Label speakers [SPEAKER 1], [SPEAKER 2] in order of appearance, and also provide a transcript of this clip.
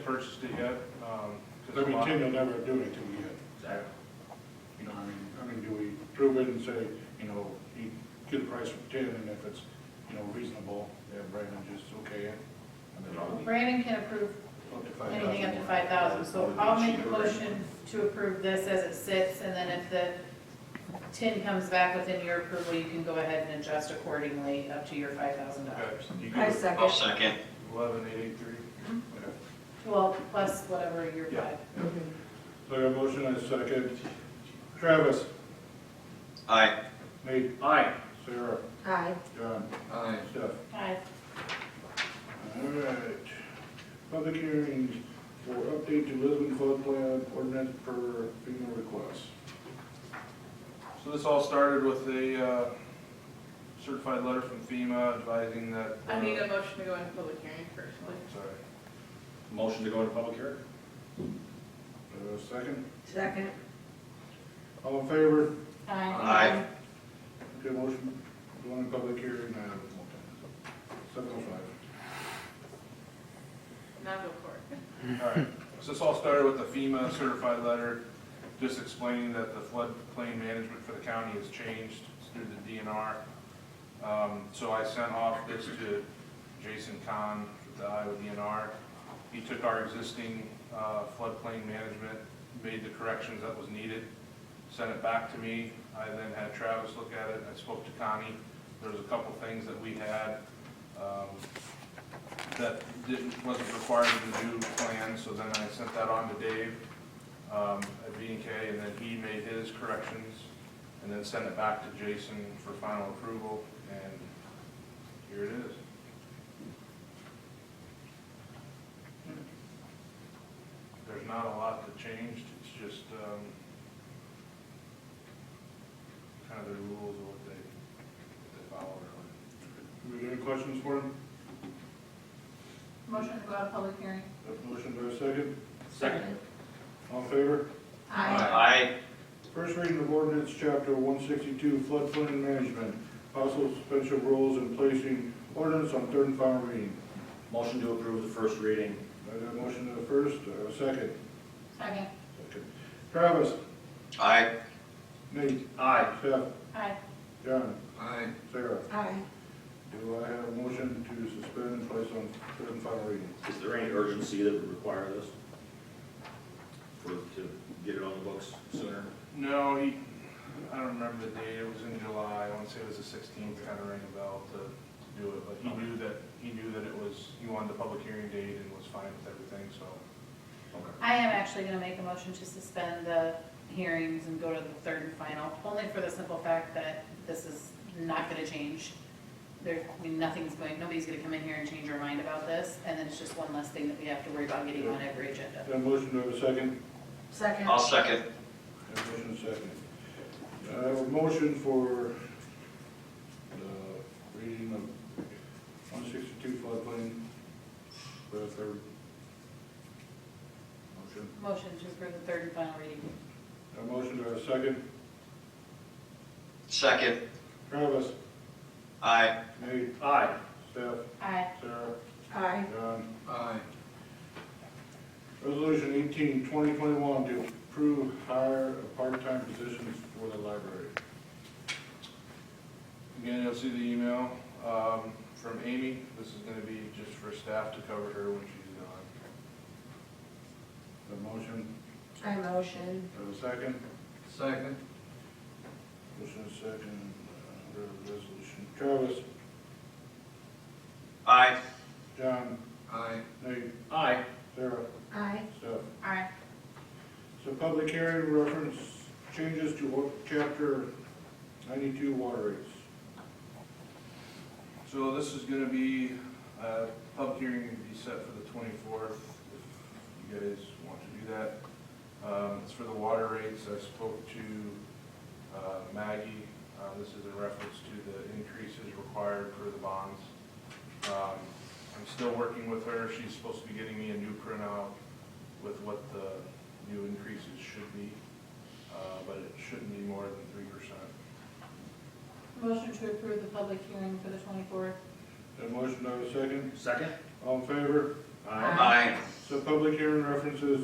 [SPEAKER 1] purchased it yet. um, 'cause
[SPEAKER 2] I
[SPEAKER 1] a
[SPEAKER 2] mean,
[SPEAKER 1] lot-
[SPEAKER 2] Tim will never do anything we get.
[SPEAKER 1] Exactly.
[SPEAKER 2] You know, I mean, I mean, do we prove it and say, you know, he get a price from ten, and if it's, you know, reasonable, then Brandon just okay it? I mean,
[SPEAKER 3] Well,
[SPEAKER 2] up
[SPEAKER 3] Brandon can approve
[SPEAKER 2] to $5,000.
[SPEAKER 3] anything up to five thousand, so I'll make a motion to approve this as it sits, and then if the tin comes back within your approval, you can go ahead and adjust accordingly up to your five thousand dollars.
[SPEAKER 1] Okay, you
[SPEAKER 4] I
[SPEAKER 1] get
[SPEAKER 4] second.
[SPEAKER 5] I'll second.
[SPEAKER 1] eleven eight eight three.
[SPEAKER 2] Okay.
[SPEAKER 3] Well, plus whatever your five.
[SPEAKER 2] So I got a motion and a second. Travis,
[SPEAKER 5] Aye.
[SPEAKER 2] Nate,
[SPEAKER 1] Aye.
[SPEAKER 2] Sarah,
[SPEAKER 4] Aye.
[SPEAKER 2] John,
[SPEAKER 5] Aye.
[SPEAKER 2] Steph.
[SPEAKER 3] Aye.
[SPEAKER 2] All right. Public hearings for update to Lisbon flood plan ordinance per FEMA request.
[SPEAKER 1] So this all started with a uh, certified letter from FEMA advising that. uh,
[SPEAKER 6] I need a motion to go into public hearing personally.
[SPEAKER 1] Sorry.
[SPEAKER 7] Motion to go into public hearing?
[SPEAKER 2] Uh, second,
[SPEAKER 4] Second.
[SPEAKER 2] all in favor?
[SPEAKER 5] Aye.
[SPEAKER 2] Okay, motion, go on public hearing, uh, seven oh five.
[SPEAKER 6] Now go for it.
[SPEAKER 1] Alright, so this all started with the FEMA certified letter, just explaining that the floodplain management for the county has changed It's through the DNR. Um, so I sent off this to Jason Kahn with the Iowa DNR. He took our existing, uh, floodplain management, made the corrections that was needed, sent it back to me. I then had Travis look at it, I spoke to Connie. There was a couple things that we had, um, that didn't, wasn't required to do plan, so then I sent that on to Dave um, at B and K, and then he made his corrections, and then sent it back to Jason for final approval, and here it is. There's not a lot that changed, it's just um, kind of their rules of what they, what they follow. really.
[SPEAKER 2] Do we have any questions for him?
[SPEAKER 3] Motion to go out of public hearing.
[SPEAKER 2] That motion, do I second?
[SPEAKER 7] Second.
[SPEAKER 2] All in favor?
[SPEAKER 5] Aye.
[SPEAKER 2] First reading of ordinance, chapter one sixty-two, floodplain management, possible suspension of rules and placing ordinance on third and final reading.
[SPEAKER 7] Motion to approve the first reading?
[SPEAKER 2] I got a motion to the first, uh, second.
[SPEAKER 3] Second.
[SPEAKER 2] Second. Travis,
[SPEAKER 5] Aye.
[SPEAKER 2] Nate,
[SPEAKER 7] Aye.
[SPEAKER 2] Steph,
[SPEAKER 3] Aye.
[SPEAKER 2] John,
[SPEAKER 5] Aye.
[SPEAKER 2] Sarah.
[SPEAKER 4] Aye.
[SPEAKER 2] Do I have a motion to suspend and place on third and final reading?
[SPEAKER 7] Is there any urgency that would require this? For, to get it on the books sooner?
[SPEAKER 1] No, he, I don't remember the date, it was in July, I want to say it was the sixteenth, kind of rang a bell to, to do it, but he knew that, he knew that it was, he wanted the public hearing date and was fine with everything, so.
[SPEAKER 3] I am actually gonna make a motion to suspend the hearings and go to the third and final, only for the simple fact that this is not gonna change. There, I mean, nothing's going, nobody's gonna come in here and change their mind about this, and then it's just one less thing that we have to worry about getting on every agenda.
[SPEAKER 2] Got a motion, do I have a second?
[SPEAKER 4] Second.
[SPEAKER 5] I'll second.
[SPEAKER 2] Have a motion second. I have a motion for the reading of one sixty-two floodplain for the third. Motion.
[SPEAKER 3] Motion to approve the third and final reading.
[SPEAKER 2] A motion to a second.
[SPEAKER 5] Second.
[SPEAKER 2] Travis,
[SPEAKER 5] Aye.
[SPEAKER 2] Nate,
[SPEAKER 7] Aye.
[SPEAKER 2] Steph,
[SPEAKER 3] Aye.
[SPEAKER 2] Sarah,
[SPEAKER 4] Aye.
[SPEAKER 2] John.
[SPEAKER 5] Aye.
[SPEAKER 2] Resolution eighteen, twenty twenty-one, to approve hire of part-time positions for the library.
[SPEAKER 1] Again, you'll see the email, um, from Amy, this is gonna be just for staff to cover her when she's gone.
[SPEAKER 2] A motion,
[SPEAKER 4] I motion.
[SPEAKER 2] have a second.
[SPEAKER 5] Second.
[SPEAKER 2] Motion is second, uh, under resolution. Travis,
[SPEAKER 5] Aye.
[SPEAKER 2] John,
[SPEAKER 5] Aye.
[SPEAKER 2] Nate,
[SPEAKER 7] Aye.
[SPEAKER 2] Sarah,
[SPEAKER 4] Aye.
[SPEAKER 2] Steph.
[SPEAKER 3] Aye.
[SPEAKER 2] So public hearing reference changes to what- chapter ninety-two water rates.
[SPEAKER 1] So this is gonna be, uh, public hearing to be set for the twenty-fourth, if you guys want to do that. Um, it's for the water rates, I spoke to, uh, Maggie, uh, this is in reference to the increases required for the bonds. Um, I'm still working with her, she's supposed to be getting me a new printout with what the new increases should be, uh, but it shouldn't be more than three percent.
[SPEAKER 3] Motion to approve the public hearing for the twenty-fourth.
[SPEAKER 2] Got a motion, do I have a second?
[SPEAKER 7] Second?
[SPEAKER 2] All in favor?
[SPEAKER 4] Aye.
[SPEAKER 5] Aye.
[SPEAKER 2] So public hearing references